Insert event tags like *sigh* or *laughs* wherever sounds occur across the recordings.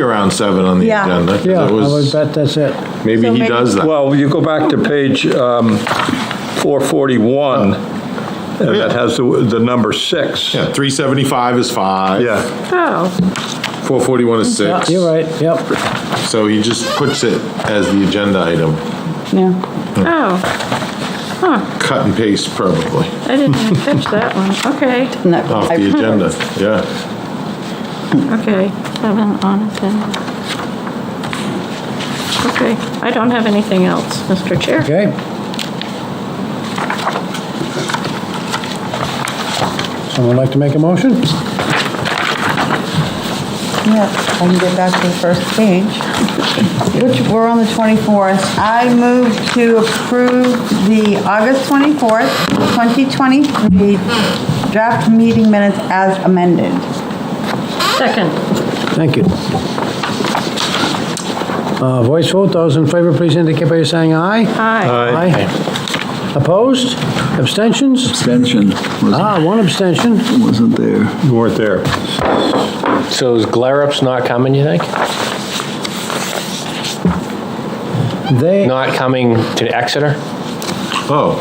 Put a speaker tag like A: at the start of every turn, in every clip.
A: Around seven on the
B: Yeah.
A: agenda. 'cause
C: Yeah, I
A: it
C: would
A: was-
C: bet that's it.
A: Maybe
B: So
A: he
B: maybe-
A: does that.
D: Well, you go back to page um, 441, and that has the the number six.
A: Yeah, three seventy-five is five.
D: Yeah,
B: Oh,
A: Four forty-one is
C: Yeah,
A: six.
C: You're right, yep.
A: So he just puts it as the agenda item,
E: Yeah.
B: oh,
A: cut and paste probably,
B: I didn't even catch that one. Okay,
E: And that-
A: off
E: I-
A: the agenda, yeah.
B: okay,
E: Seven on agenda.
B: okay. I don't have anything else, Mr. Chair.
C: Okay. Someone like to make a motion?
F: Yeah, I can get back to the first page, which we're on the 24th. I move to approve the August 24th, 2023 draft meeting minutes as amended.
B: Second,
C: Thank you. Uh, Voice vote, those in favor, please indicate by saying aye.
B: aye.
C: Aye. Opposed? Abstentions?
G: Abstention wasn't-
C: Ah, one abstention.
G: wasn't there.
D: you weren't there.
H: So is Glarup's not coming, you think?
C: They,
H: Not coming to Exeter?
A: Oh.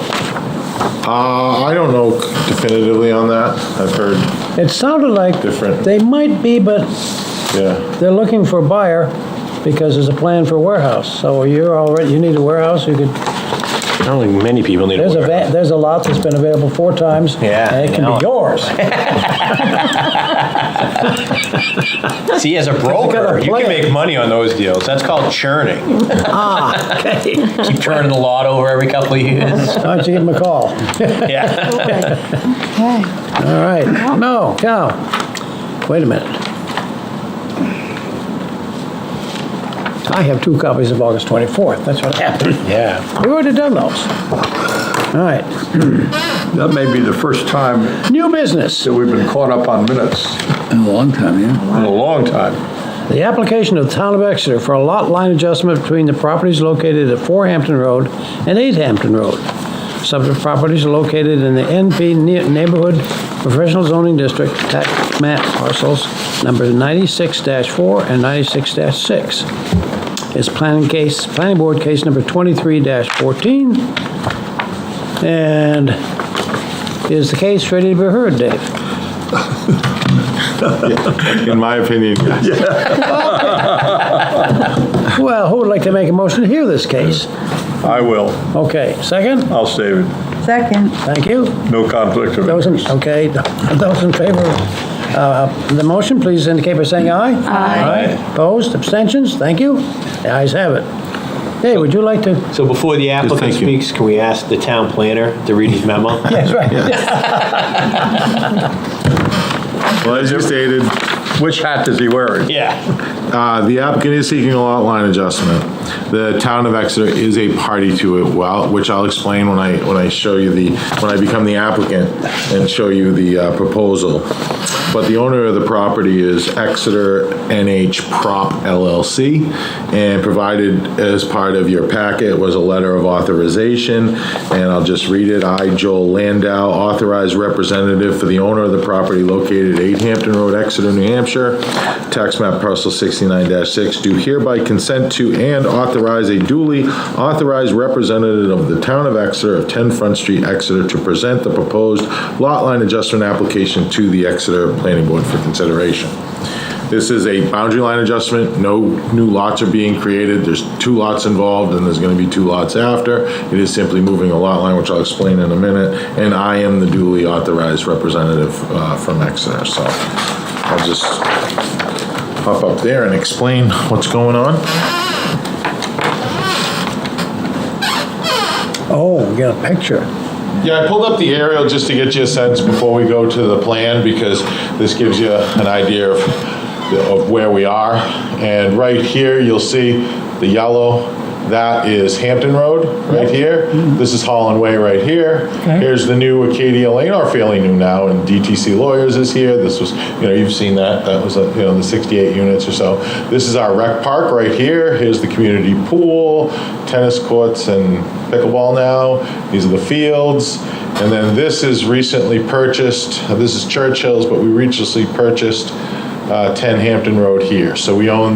A: Uh, I don't know definitively on that. I've heard,
C: it sounded like
A: Different.
C: they might be, but
A: yeah.
C: they're looking for a buyer because there's a plan for warehouse. So you're already, you need a warehouse, you could
H: I don't think many people need to
C: There's a,
H: wear
C: va- there's a lot that's been available four times.
H: Yeah,
C: And it
H: I
C: can
H: know.
C: be *laughs* yours.
H: See, as a
C: got
H: broker,
C: a
H: you can
C: plan.
H: make money on those deals. That's called churning. *laughs*
C: Ah, okay.
H: Keep turning the lot over every couple of years.
C: Why don't you give him a call?
H: Yeah.
F: Okay.
C: All right. No, Cal, wait a minute. I have two copies of August 24th. That's what happened.
H: Yeah.
C: We already done those. All right.
D: That may be the first time
C: New business.
D: that we've been caught up on minutes
G: In a long time, yeah.
D: in a long time.
C: The application of the Town of Exeter for a lot line adjustment between the properties located at 4 Hampton Road and 8 Hampton Road. Subject properties are located in the NP Ne- Neighborhood Professional Zoning District, tax map parcels numbers 96-4 and 96-6. It's planning case, planning board case number 23-14. And is the case ready to be heard, Dave?
A: In my
D: *laughs*
A: opinion, yes.
C: Well, who would like to make a motion to hear this case?
D: I will,
C: Okay, second?
D: I'll save it,
F: Second.
C: Thank you.
D: no conflict of
C: Those in,
D: interest.
C: okay, those in favor of uh, the motion, please indicate by saying aye. Aye. Opposed, abstentions, thank you. The ayes have it. Hey, would you like to?
H: So before the applicant
A: thank you.
H: speaks, can we ask the town planner to read his *laughs* memo?
C: Yes, right.
A: Well, as you stated,
D: Which hat does he wear?
H: Yeah.
A: Uh, The applicant is seeking a lot line adjustment. The town of Exeter is a party to it, well, which I'll explain when I, when I show you the, when I become the applicant and show you the uh, proposal. But the owner of the property is Exeter NH Prop LLC, and provided as part of your packet was a letter of authorization, and I'll just read it. I, Joel Landau, authorized representative for the owner of the property located at 8 Hampton Road, Exeter, New Hampshire, tax map parcel 69-6, do hereby consent to and authorize a duly authorized representative of the town of Exeter of 10 Front Street, Exeter, to present the proposed lot line adjustment application to the Exeter Planning Board for consideration. This is a boundary line adjustment, no new lots are being created, there's two lots involved, and there's gonna be two lots after. It is simply moving a lot line, which I'll explain in a minute, and I am the duly authorized representative uh, from Exeter, so I'll just hop up there and explain what's going on.
C: *laughs* Oh, we got a picture.
A: Yeah, I pulled up the aerial just to get you a sense before we go to the plan, because this gives you an idea of, of where we are. And right here, you'll see the yellow, that is Hampton Road, right here. This is Holland Way right here. Here's the new Acadia Lane, or fairly new now, and DTC Lawyers is here. This was, you know, you've seen that, that was, uh, you know, the 68 units or so. This is our rec park right here. Here's the community pool, tennis courts and pickleball now. These are the fields. And then this is recently purchased, uh, this is Churchill's, but we recently purchased uh, 10 Hampton Road here. So we own